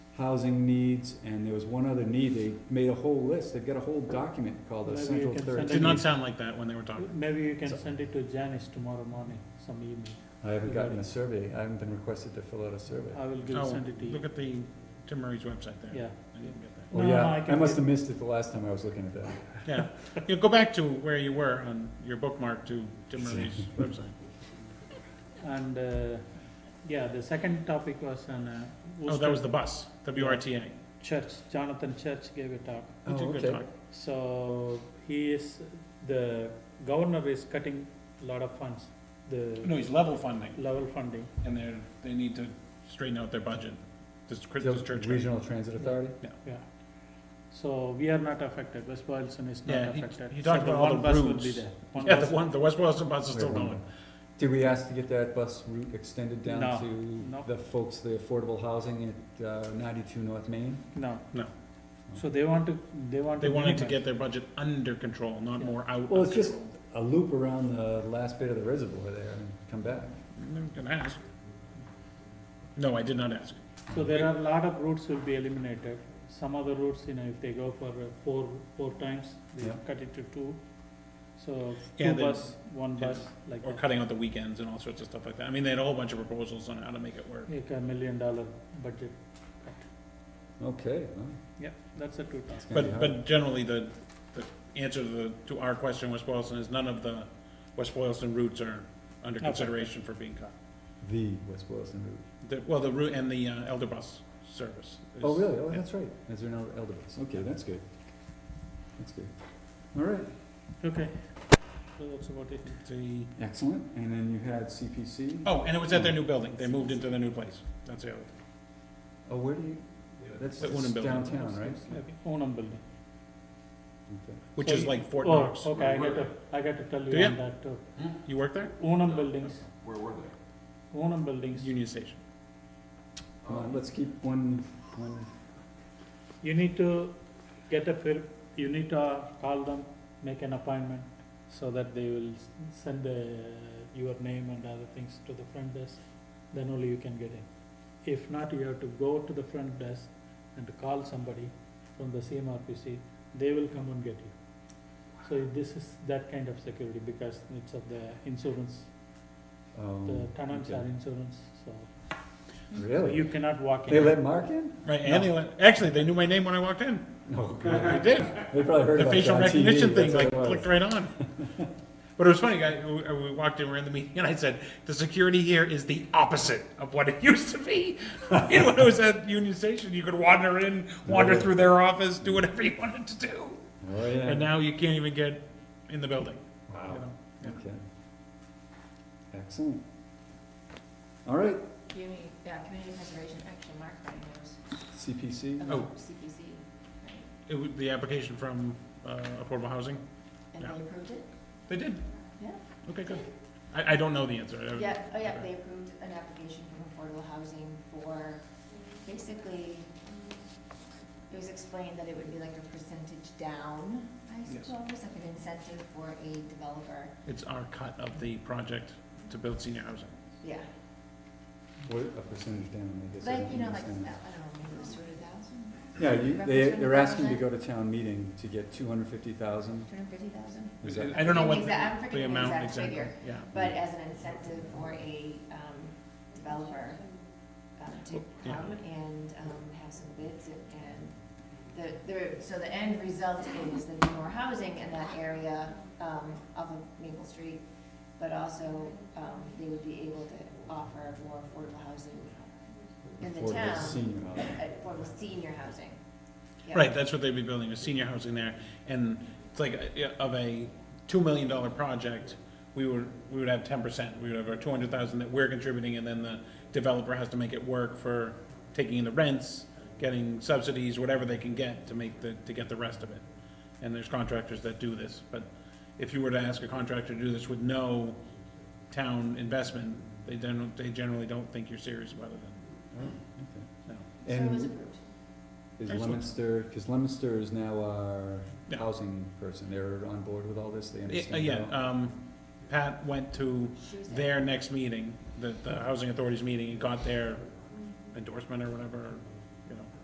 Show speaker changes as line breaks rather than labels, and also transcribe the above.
housing needs, and there was one other need, they made a whole list, they've got a whole document called the
Maybe you
Central
can
Third.
send
Did not sound like that when they were talking.
Maybe you can
So-
send it to Janice tomorrow morning, some email.
I haven't gotten a survey, I haven't been requested to fill out a survey.
I will give,
Oh,
send it to
look
you.
at Oh, the Tim Murray's website there.
Yeah.
I didn't get that.
Well,
No, no, I
Oh, yeah, I
can
must
get-
have missed it the last time I was looking at that.
Yeah, you go back to where you were on your bookmark to Tim Murray's website.
And, uh, yeah, the second topic was on uh,
Oh, that was
Worcester
the bus, WRTA.
Oh, Church, Jonathan Church gave a talk.
He did
Oh,
a good
okay.
talk.
So he is, the governor is cutting a lot of funds, the
No, he's level funding,
level funding.
and they're, they need to straighten out their budget. This Christmas
Del-
church.
Regional Transit Authority?
Yeah. So we are not affected, West Boylston is not
Yeah, he-
affected.
he
So
talked
the
about all
one
the
bus will be
routes.
there.
Yeah, the
bus-
one, the West Boylston bus is still
Wait, one
going.
Did we ask to get that bus route extended
No,
down
no.
to the folks, the affordable housing at uh, ninety-two North Main?
No.
No.
So they want to, they want to.
They wanted to
minimize.
get their budget under control, not
Yeah.
more out of
Well, it's just
control.
a loop around the last bit of the reservoir there and come back.
I'm gonna ask. No, I did not ask.
So there are a lot of routes will be eliminated. Some other routes, you know, if they go for uh, four, four times, they
Yeah.
cut it to two. So
Yeah,
two
they-
bus, one
yeah.
bus, like
Or
that.
cutting out the weekends and all sorts of stuff like that. I mean, they had a whole bunch of proposals on how to make it work.
Like a million dollar budget cut.
Okay, well,
Yeah, that's a two
it's
task.
gonna be
But,
hard.
but generally, the, the answer to the, to our question, West Boylston, is none of the West Boylston routes are under
Not affected.
consideration for being cut.
The West Boylston route.
The, well, the route and the uh, Elder Bus service. is-
Oh, really? Oh,
yeah.
that's right. Is there no elder bus? Okay, that's good. That's good. All right,
Okay. So that's about it.
The,
excellent. And then you had CPC.
oh, and it was at their new building. They moved into their new place. That's the other. thing.
Oh, where do you, that's
The Unum building.
downtown, right?
Okay, Unum building.
Okay.
Which
So
is
you-
like Fort
Oh,
Knox.
okay, I got to, I got to tell
Do
you
you?
on that too.
You work there?
Unum buildings,
Where were they?
Unum buildings.
Union Station.
Come
Uh,
on, let's keep one, one,
You need to get a, fir- you need to uh, call them, make an appointment, so that they will s- send the, your name and other things to the front desk, then only you can get in. If not, you have to go to the front desk and to call somebody from the CMRPC, they will come and get you. So this is that kind of security, because it's of the insurance, the
um.
tenants
okay.
are insurance, so
Really?
you cannot walk in.
They let Mark in?
Right, and they, let- actually, they knew my name when I walked in.
No.
They did.
They probably heard
The
about it
facial
on TV,
recognition thing,
that's what
like,
it was.
clicked right on. But it was funny, I, we we walked in, we we're in the meeting, and I said, the security here is the opposite of what it used to be. You know, when it was at Union Station, you could wander in, wander
Right.
through their office, do whatever you wanted to do.
Oh, yeah.
And now you can't even get in the building. you
Wow.
know?
Okay. Excellent. All right,
Community, yeah, Community Preservation Action Mark knows
CPC,
Oh.
about CPC, right?
It would, the application from, uh, affordable housing,
And
Yeah.
they approved it?
they did?
Yeah.
Okay, good. I, I don't know the answer. I-
Yeah, oh yeah,
okay.
they approved an application from affordable housing for, basically, it was explained that it would be like a percentage down, I
Yes.
suppose, like an incentive for a developer,
It's our cut of the project to build senior housing.
yeah.
what, a percentage down, I guess. I
Like, you
don't
know, like, I don't
understand.
know, maybe it was two hundred thousand,
Yeah, you, they,
Reference
they're asking to
100,000.
go to town meeting to get two hundred fifty thousand.
two hundred fifty thousand?
Is that-
I don't know
The
what
exact- I'm
the- the
forgetting the
amount
exact
exactly,
figure,
yeah.
But as an incentive for a um, developer uh, to
Oh, Yeah.
come and um, have some bids and the, the, so the end result is there'll be more housing in that area um, off of Maple Street, but also um, they would be able to offer more affordable housing in the
for
town.
Senior
uh,
housing.
Affordable senior housing. Yeah.
Right, that's what they'd be building, a senior housing there, and it's like, a- of a two million dollar project, we would, we would have ten percent, we would have our two hundred thousand that we're contributing, and then the developer has to make it work for taking in the rents, getting subsidies, whatever they can get to make the, to get the rest of it. And there's contractors that do this, but if you were to ask a contractor to do this with no town investment, they don't, they generally don't think you're serious about it
Right, okay.
then,
So it was
And
approved.
is
Excellent.
Lemonster, because Lemonster is now our
Yeah.
housing person, they're on board with all this, they
no. Yeah,
understand.
Yeah,
how-
um, Pat went to
She was there.
their next meeting, the, the housing authorities meeting, and got their endorsement or whatever,